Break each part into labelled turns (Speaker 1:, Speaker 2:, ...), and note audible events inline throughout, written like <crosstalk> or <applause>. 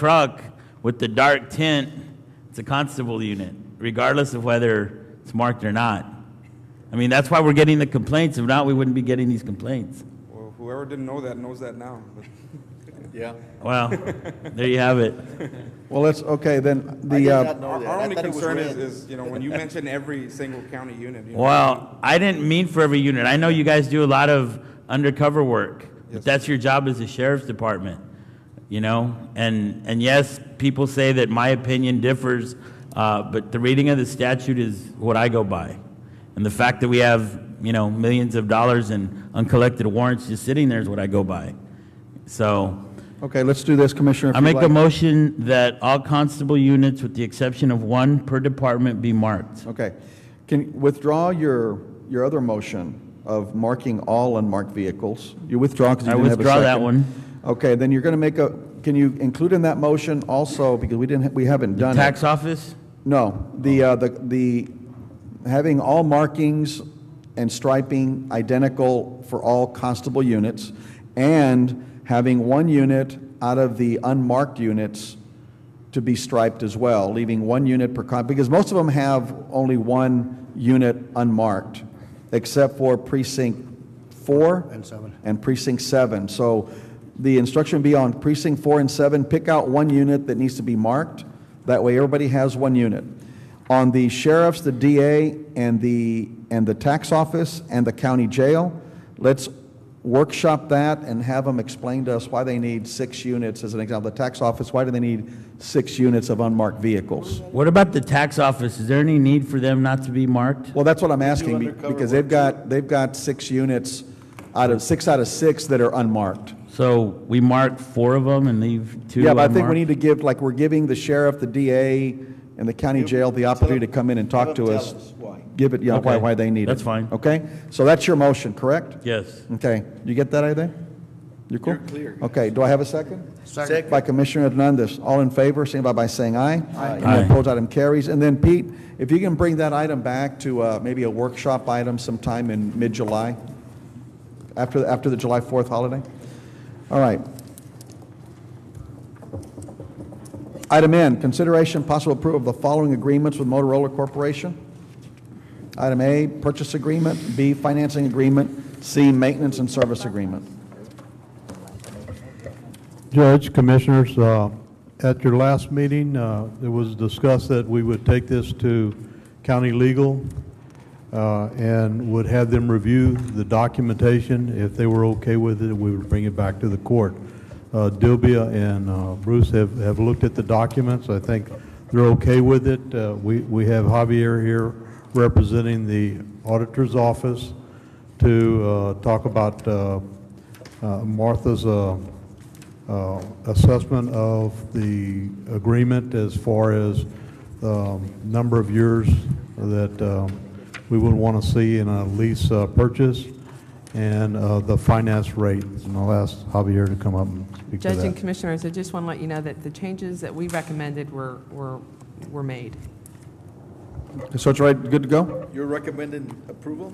Speaker 1: truck with the dark tint, it's a constable unit, regardless of whether it's marked or not. I mean, that's why we're getting the complaints. If not, we wouldn't be getting these complaints.
Speaker 2: Well, whoever didn't know that knows that now. But
Speaker 3: Yeah.
Speaker 1: Well, <laughs> there you have it.
Speaker 4: Well, let's, okay, then,
Speaker 3: I did
Speaker 4: the,
Speaker 3: not
Speaker 4: uh,
Speaker 3: know
Speaker 2: our,
Speaker 3: that.
Speaker 2: our
Speaker 3: I
Speaker 2: only
Speaker 3: thought it was
Speaker 2: concern is,
Speaker 3: red.
Speaker 2: is, you know, when you mention every single county unit, you know,
Speaker 1: Well, I didn't mean for every unit. I know you guys do a lot of undercover work, but that's your job as a sheriff's department, you know? And, and yes, people say that my opinion differs, uh, but the reading of the statute is what I go by. And the fact that we have, you know, millions of dollars in uncollected warrants just sitting there is what I go by. So,
Speaker 4: okay, let's do this, Commissioner. if
Speaker 1: I
Speaker 4: you'd
Speaker 1: make a
Speaker 4: like.
Speaker 1: motion that all constable units, with the exception of one per department, be marked.
Speaker 4: Okay. Can withdraw your, your other motion of marking all unmarked vehicles? You withdraw because you
Speaker 1: I
Speaker 4: didn't have a second.
Speaker 1: withdraw that one.
Speaker 4: Okay, then you're going to make a, can you include in that motion also, because we didn't, we haven't done it?
Speaker 1: Tax office?
Speaker 4: No, the, uh, the, the, having all markings and striping identical for all constable units, and having one unit out of the unmarked units to be striped as well, leaving one unit per con, because most of them have only one unit unmarked, except for precinct four.
Speaker 3: And seven.
Speaker 4: And precinct seven. So the instruction would be on precinct four and seven, pick out one unit that needs to be marked. That way, everybody has one unit. On the sheriffs, the DA, and the, and the tax office, and the county jail, let's workshop that and have them explain to us why they need six units, as an example. The tax office, why do they need six units of unmarked vehicles?
Speaker 1: What about the tax office? Is there any need for them not to be marked?
Speaker 4: Well, that's what I'm asking, be-
Speaker 3: undercover
Speaker 4: because
Speaker 3: work,
Speaker 4: they've got, they've got six units out of, six out of six that are unmarked.
Speaker 1: So we mark four of them and leave two
Speaker 4: Yeah, but I think we
Speaker 1: unmarked?
Speaker 4: need to give, like, we're giving the sheriff, the DA, and the county jail the opportunity to come in and talk
Speaker 3: Tell them- tell
Speaker 4: to us.
Speaker 3: us why.
Speaker 4: Give it, yeah, why,
Speaker 1: Okay,
Speaker 4: why they need it.
Speaker 1: that's fine.
Speaker 4: Okay? So that's your motion, correct?
Speaker 1: Yes.
Speaker 4: Okay, you get that, Aiden? You're cool?
Speaker 3: You're clear, guys.
Speaker 4: Okay, do I have a second?
Speaker 3: Second.
Speaker 4: By Commissioner Hernandez. All in favor, signify by saying aye. Aye.
Speaker 1: Aye.
Speaker 4: Any opposed, item carries. And then Pete, if you can bring that item back to uh, maybe a workshop item sometime in mid-July, after, after the July 4th holiday? All right. Item N, consideration possible approval of the following agreements with Motorola Corporation. Item A, purchase agreement, B, financing agreement, C, maintenance and service agreement.
Speaker 5: Judge, Commissioners, uh, at your last meeting, uh, it was discussed that we would take this to county legal uh, and would have them review the documentation. If they were okay with it, we would bring it back to the court. Uh, Dilbia and uh, Bruce have have looked at the documents. I think they're okay with it. Uh, We we have Javier here representing the auditor's office to uh, talk about uh, uh, Martha's uh, uh, assessment of the agreement as far as um, number of years that um, we would want to see in a lease uh, purchase and uh, the finance rate. And I'll ask Javier to come up and speak to
Speaker 6: Judge and
Speaker 5: that.
Speaker 6: Commissioners, I just want to let you know that the changes that we recommended were, were, were made.
Speaker 4: So it's right, good to go?
Speaker 3: You're recommending approval?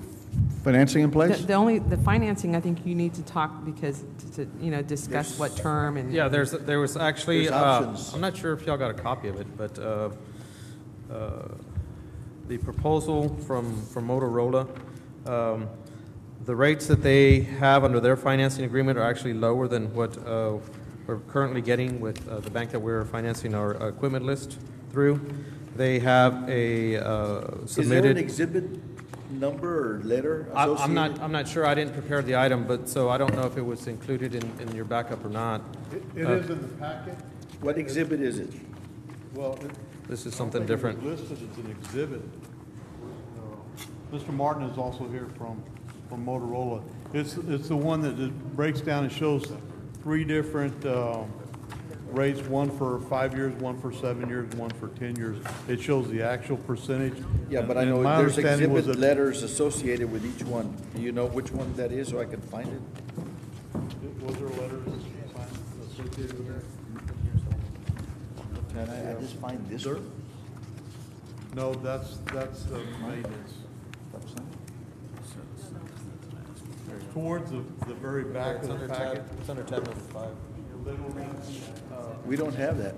Speaker 4: Financing in
Speaker 6: The
Speaker 4: place?
Speaker 6: the only, the financing, I think you need to talk because, to, to, you know, discuss what term and.
Speaker 7: Yeah, there's, there was actually,
Speaker 3: There's
Speaker 7: uh,
Speaker 3: options.
Speaker 7: I'm not sure if y'all got a copy of it, but uh, uh, the proposal from, from Motorola, um, the rates that they have under their financing agreement are actually lower than what uh, we're currently getting with uh, the bank that we're financing our equipment list through. They have a uh,
Speaker 3: Is there an
Speaker 7: submitted.
Speaker 3: exhibit number or letter
Speaker 7: I- I'm not,
Speaker 3: associated?
Speaker 7: I'm not sure, I didn't prepare the item, but, so I don't know if it was included in, in your backup or not.
Speaker 5: It is in the packet.
Speaker 3: What exhibit is it?
Speaker 5: Well,
Speaker 7: This is something different.
Speaker 5: listed as an exhibit. Mr. Martin is also here from, from Motorola. It's, it's the one that it breaks down and shows three different um, rates, one for five years, one for seven years, and one for 10 years. It shows the actual percentage.
Speaker 3: Yeah, but I
Speaker 5: And- and
Speaker 3: know
Speaker 5: my
Speaker 3: there's
Speaker 5: understanding was
Speaker 3: exhibit
Speaker 5: that-
Speaker 3: letters associated with each one. Do you know which one that is so I can find it?
Speaker 5: Was there letters signed associated with that?
Speaker 3: Can I, uh, I just find this one?
Speaker 5: No, that's, that's the maintenance. Towards the, the very back of the packet.
Speaker 7: it's under tab number five.
Speaker 5: We don't have that.